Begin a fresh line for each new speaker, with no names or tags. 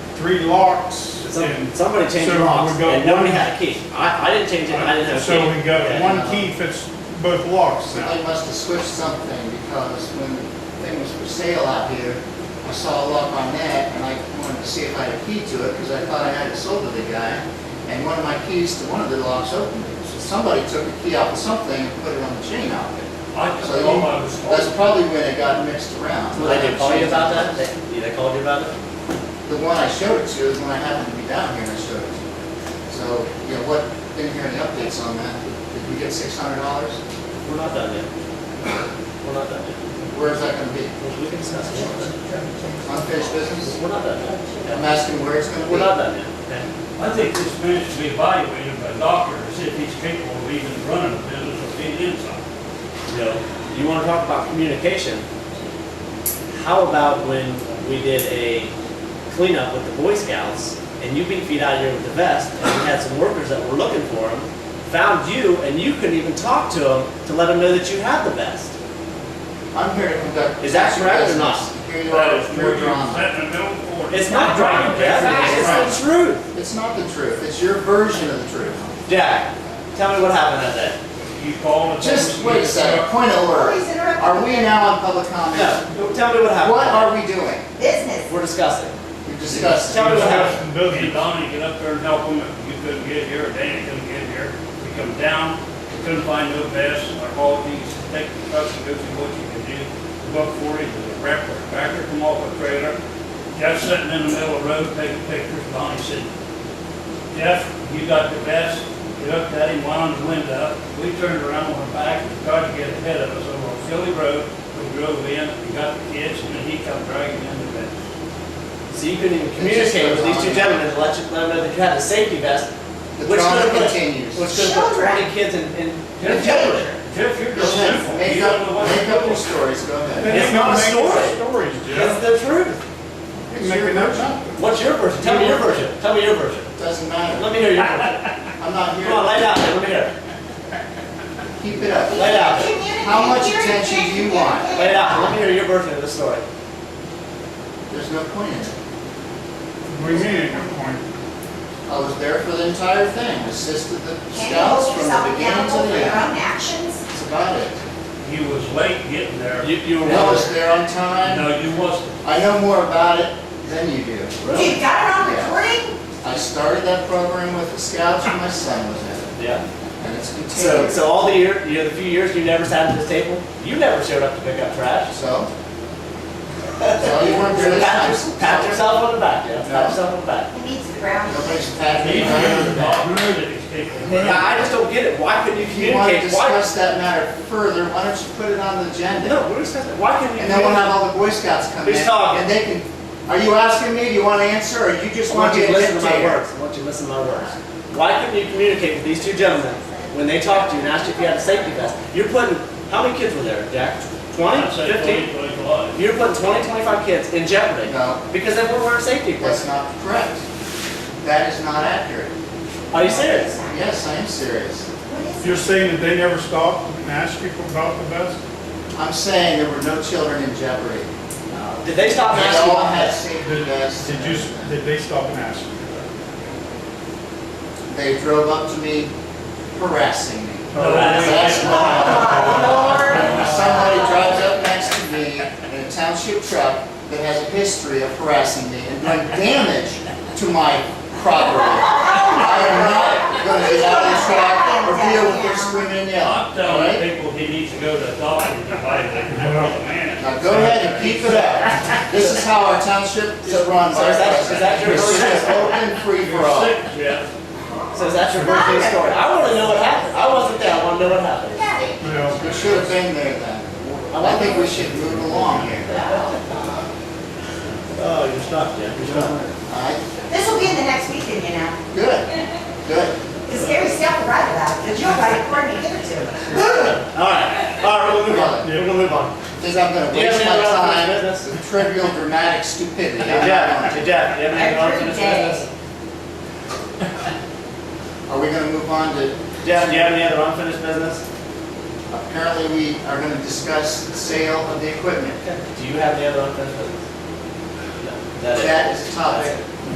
three locks
Some-
and.
Somebody changed
so
the locks,
we got
and nobody
one-
had a key. I, I didn't change it, I didn't have a key.
So we got
Yeah.
one key fits both locks now.
They must have switched something because when the thing was for sale out here, I saw a lock on that and I wanted to see if I had a key to it because I thought I had it sold to the guy. And one of my keys to one of the locks opened it. So somebody took the key out of something and put it on the chain out there.
I just
So
thought I was.
you- that's probably when it got mixed around.
Well, they did call you about that? They, yeah, they called you about it?
The one I showed it to is when I happened to be down here and I showed it to you. So, you know, what, been hearing the updates on that? Did we get six hundred dollars?
We're not done yet. We're not done yet.
Where's that gonna be?
We- We can discuss it. more,
Unfinished business?
but We're not done yet.
I'm asking where it's gonna be.
We're not done yet. Okay.
I think this man should be evaluated by doctors if he's capable of even running a business or being inside.
You know, you wanna talk about communication? How about when we did a cleanup with the Boy Scouts, and you beat feet out here with the vest, and we had some workers that were looking for them, found you, and you couldn't even talk to them to let them know that you had the vest?
I'm here to conduct.
Is that correct or not?
business. Here you
That is
are,
true,
your
you
drama.
set in the middle for it.
It's not driving death, it's the truth.
It's not the truth, it's your version of the truth.
Jack, tell me what happened that day.
You call it.
Just wait a second, point of order.
Always interrupt.
Are we now on public comment?
No, tell me what happened.
What are we doing?
Business.
We're discussing.
You're discussing.
Tell me what happened.
Discussing
And
building.
Donnie get up there and help him, if you couldn't get here, or Danny couldn't get here, we come down, we couldn't find no vest, our ball needs to take the truck and go through what you can do. Buck forty, the wrap her back her, come off a trailer, Jeff sitting in the middle of the road taking pictures, Donnie said, Jeff, you got the vest, he looked at him, wound the window up, we turned around, went back, and tried to get ahead of us over on Philly Road, we drove in, we got the kids, and then he come dragging in the vest.
So you couldn't even communicate with these two gentlemen to let you, let them know that you had the safety vest,
The
Which
drama
one?
continues.
which could have put twenty kids in, in in danger.
Jeff, you're
Go
just
ahead,
simple.
make
You don't know
up,
what
make up your
you're
stories, go ahead.
It's not a story.
Stories,
It's
Jeff.
the truth.
It's your version,
What's your version? Tell me your version. Tell me your version.
doesn't matter,
Let me hear your version.
I'm not
Come on, lay
here,
down. Let me hear. it.
keep it up.
Lay down.
How much attention do you want?
Lay down. Let me hear your version of the story.
There's no point in it.
We made a point.
I was there for the entire thing, assisted the
Can you hold
scouts from
yourself
the beginning to
accountable for
the
your
end,
own actions?
that's about it.
doing. You was late getting there.
You, you were
I was
wrong.
there on time.
No, you wasn't.
I know more about it than you do.
You've got it on
Yeah.
recording?
I started that program with the scouts when my son was in it,
Yeah.
and it's
So,
continued.
so all the year, you know, the few years you never sat at this table, you never showed up to pick up trash.
So? So all you want to do
So
is...
pat, your- pat yourself on the back, yeah,
No.
pat yourself on the back.
It needs to ground.
Nobody's
He
patting me
was
on
not rude that he's capable.
Yeah, I just don't get it, why couldn't you
If you want to
communicate, why?
discuss that matter further, why don't you put it on the agenda?
No, we're discussing, why couldn't you
And then we'll have
communicate?
all the Boy Scouts come in.
Who's talking?
And they can, are you asking me, do you want to answer, or you just
I
want
want
to
you
get
to listen to my
dictator?
words, I want you to listen to my words. Why couldn't you communicate with these two gentlemen when they talked to you and asked you if you had a safety vest? You're putting, how many kids were there, Jack? Twenty,
I said
fifteen?
twenty, twenty-five.
You're putting twenty, twenty-five kids in jeopardy
No,
because they weren't wearing safety
that's
vests.
not correct. That is not accurate.
Are you serious?
Yes, I am serious.
What is
You're saying that they never stopped and asked you about the vest?
I'm saying there were no children in jeopardy.
Did they stop and
They
ask you
all
about
had
this?
safety
Did
vests.
did you, did they stop and ask you?
They drove up to me harassing me.
No,
That's
we-
not.
Lord.
Somebody drives up next to me in a township truck that has a history of harassing me and doing damage to my property. I am not gonna get out of the truck or deal with their screaming and yelling,
I'm
all
telling
right?
people he needs to go to the doctor to evaluate. Man,
Now go ahead and keep it up. This is how our township is run.
So is that- is that your-
It's just open free for
You're
all.
sick, Jeff.
So is that your birthday story? I want to know what happened. I wasn't there. I want to know what happened.
Daddy.
Well,
We should have been there then. I think we should move along here.
Oh, you're stuck, Jeff. You're stuck.
All right,
This will be in the next weekend, you know,
good, good.
because Gary's still right about it, because you're right, according to you two.
All right. All right. We're gonna move on. We're gonna move on.
Because I'm gonna
Do you have
waste my
any other
time
business?
with trivial, dramatic stupidity.
Hey,
I'm not
Jeff.
going
Hey, Jeff. You have anything else to
Every
discuss?
day.
to. Are we gonna move on to,
Jeff, do you have any other unfinished business?
apparently we are gonna discuss the sale of the equipment.
Do you have any other unfinished business? No. That is.
That is a topic